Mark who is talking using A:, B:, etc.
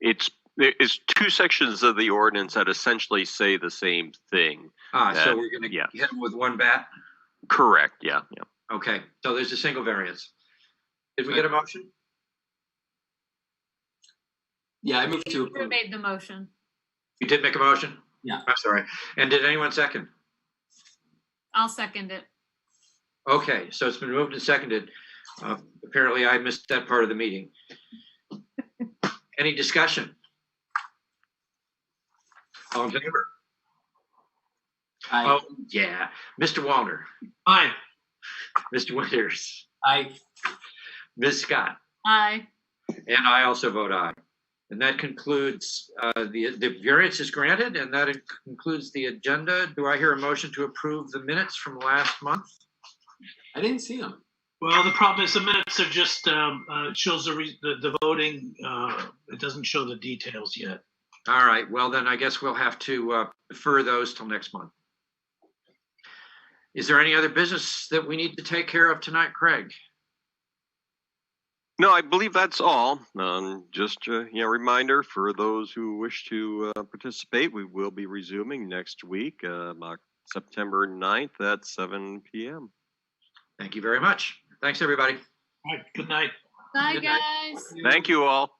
A: It's there is two sections of the ordinance that essentially say the same thing.
B: Ah,
A: That-
B: so we're gonna
A: yeah.
B: hit them with one bat?
A: Correct, yeah, yeah.
B: Okay, so there's a single variance. Did we get a motion?
C: Yeah, I move to
D: You
C: approve.
D: made the motion.
B: You did make a motion?
C: Yeah.
B: I'm sorry. And did anyone second?
D: I'll second it.
B: Okay, so it's been moved and seconded. Uh, Apparently I missed that part of the meeting. Any discussion? All in favor?
C: I,
B: Oh, yeah. Mr. Wallner,
C: I,
B: Mr. Winters,
C: I,
B: Ms. Scott,
D: Aye.
B: and I also vote aye. And that concludes, uh, the, the variance is granted and that concludes the agenda. Do I hear a motion to approve the minutes from last month?
C: I didn't see them.
E: Well, the problem is the minutes are just, um, uh, it shows the, re- the, the voting, uh, it doesn't show the details yet.
B: All right, well then I guess we'll have to uh, defer those till next month. Is there any other business that we need to take care of tonight, Craig?
A: No, I believe that's all. Um, just a you know, reminder for those who wish to uh, participate, we will be resuming next week, uh, Oc- September 9th at 7 p.m.
B: Thank you very much. Thanks, everybody.
E: All right, good night.
D: Bye,
B: Good night.
D: guys.
A: Thank you all.